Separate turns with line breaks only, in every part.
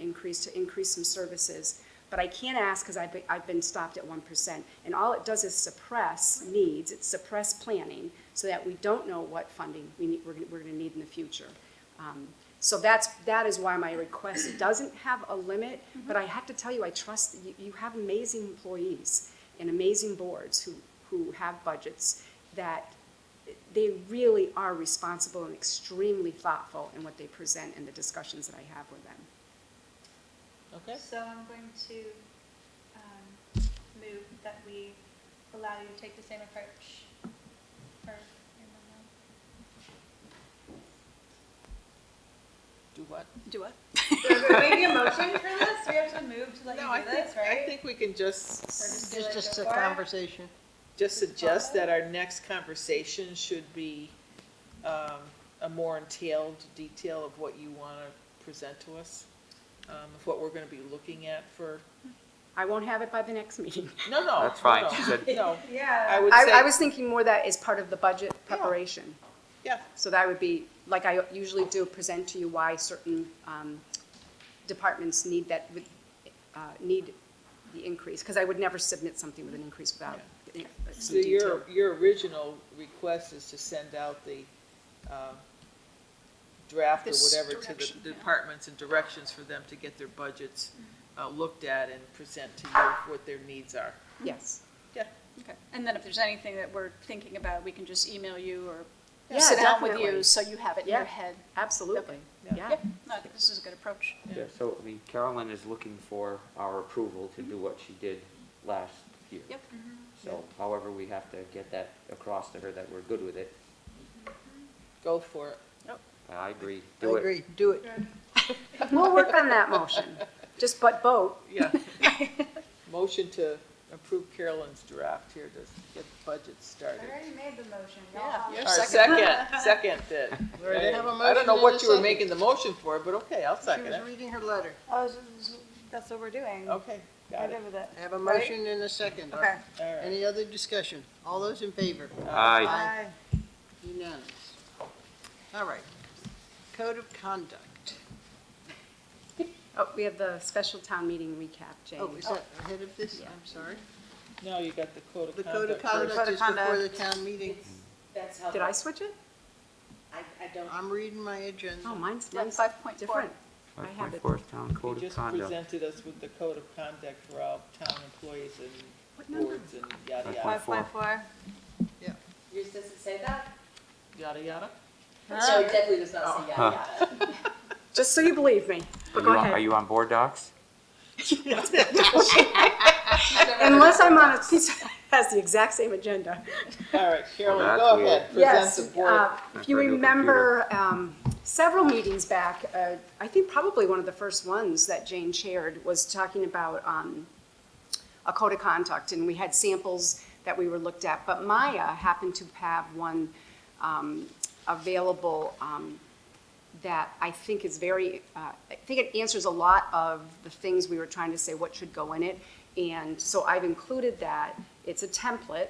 increase to increase some services. But I can't ask because I've been, I've been stopped at one percent. And all it does is suppress needs, it suppress planning, so that we don't know what funding we need, we're, gonna- we're gonna need in the future. Um, So that's, that is why my request doesn't have a limit, but I have to tell you, I trust, you, you have amazing employees and amazing boards who, who have budgets that they really are responsible and extremely thoughtful in what they present and the discussions that I have with them.
Okay,
So I'm going to um, move that we allow you to take the same approach for your memo.
do what?
Do what?
Do we need a motion for this? We have to move to let
No, I
you do
think,
this,
I
right?
think we can just,
do it
It's just a
before?
conversation.
just suggest
follow.
that our next conversation should be um, a more entailed detail of what you want to present to us, um, of what we're going to be looking at for,
I won't have it by the next meeting.
no, no.
That's fine,
no,
she said-
No, I
Yeah.
would
I, I
say,
was thinking more that as part of the budget preparation.
yeah,
So that would be, like I usually do, present to you why certain um, departments need that, with, uh, need the increase. Because I would never submit something with an increase without uh,
so
some detail.
your, your original request is to send out the um, draft or
This
whatever to
direction,
the
yeah.
departments and directions for them to get their budgets uh, looked at and present to you what their needs are.
Yes.
Yeah.
Okay. And then if there's anything that we're thinking about, we can just email you
Yeah,
or sit down with
definitely.
you so you have it in your
Yeah.
head.
Absolutely.
Yeah.
Yeah.
Yeah, no, I think this is a good approach.
Yeah, so, I mean, Carolyn is looking for our approval to do what she did last year.
Yep.
So however, we have to get that across to her that we're good with it.
Go for it.
I agree, do it.
do it.
We'll work on that motion. Just but vote.
Yeah. Motion to approve Carolyn's draft here to get the budget
I
started.
already made the motion. y'all.
Yeah,
Or
you're second.
second, second did.
already
Hey,
have a
I don't
motion
know
and
what
a
you were
second.
making the motion for, but okay, I'll second it.
reading her letter.
Oh, so- so- That's what we're doing.
Okay, got
I'm
it.
good with it.
I have a
Right?
and a second.
Okay.
All right.
other discussion? All those in favor?
Aye.
Aye.
Unanimous. All right. Code of conduct.
Oh, we have the special town meeting recap, Jane.
Oh, is that ahead of this?
Yeah.
I'm sorry.
Now you got the code of
The
conduct.
code of
first.
conduct is before the town meeting.
That's how,
Did I switch it?
I'm reading my agenda.
Oh, mine's,
Yeah,
mine's
5.4.
different. I
Five
have
point
it.
four, town
You
code of
just
conduct.
presented us with the code of conduct for all town employees
What
and
number?
boards and yada,
Five
yada,
point four.
yours doesn't say that?
yada, yada.
No, it definitely does not say yada yada.
Just so you believe me.
Are
But
you
go
on, are
ahead.
you on board docs?
Unless I'm on a piece that has the exact same agenda.
All right, Carolyn,
that's
go
weird.
ahead, present
Yes,
the board.
uh, if you
That's my new
remember, um, several meetings back, uh, I think probably one of the first ones that Jane chaired was talking about, um, a code of conduct, and we had samples that we were looked at, but Maya happened to have one, um, available, um, that I think is very, uh, I think it answers a lot of the things we were trying to say, what should go in it. And so I've included that. It's a template.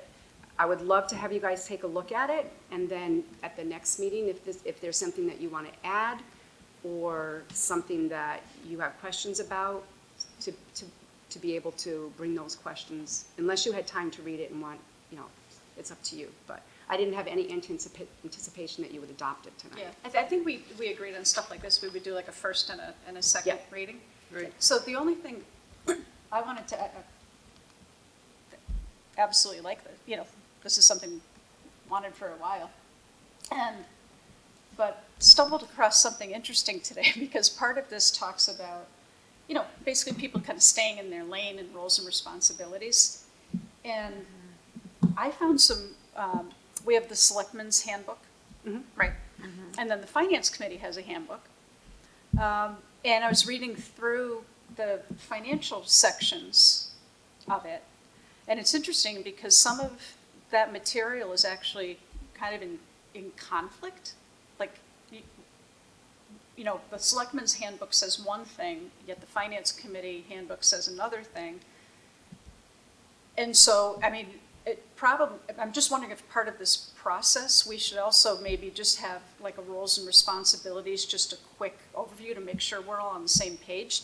I would love to have you guys take a look at it. And then at the next meeting, if this, if there's something that you want to add or something that you have questions about, to, to, to be able to bring those questions, unless you had time to read it and want, you know, it's up to you. But I didn't have any anticipa- anticipation that you would adopt it tonight.
Yeah, I, th- I think we, we agreed on stuff like this, we would do like a first and a, and a second
Yeah.
reading.
Right.
So the only thing I wanted to, uh, uh, absolutely like this, you know, this is something wanted for a while. And, but stumbled across something interesting today because part of this talks about, you know, basically people kind of staying in their lane and roles and responsibilities. And I found some, um, we have the selectmen's handbook, right? And then the finance committee has a handbook. Um, and I was reading through the financial sections of it. And it's interesting because some of that material is actually kind of in, in conflict. Like, you, you know, the selectmen's handbook says one thing, yet the finance committee handbook says another thing. And so, I mean, it probably, I'm just wondering if part of this process, we should also maybe just have like a roles and responsibilities, just a quick overview to make sure we're all on the same page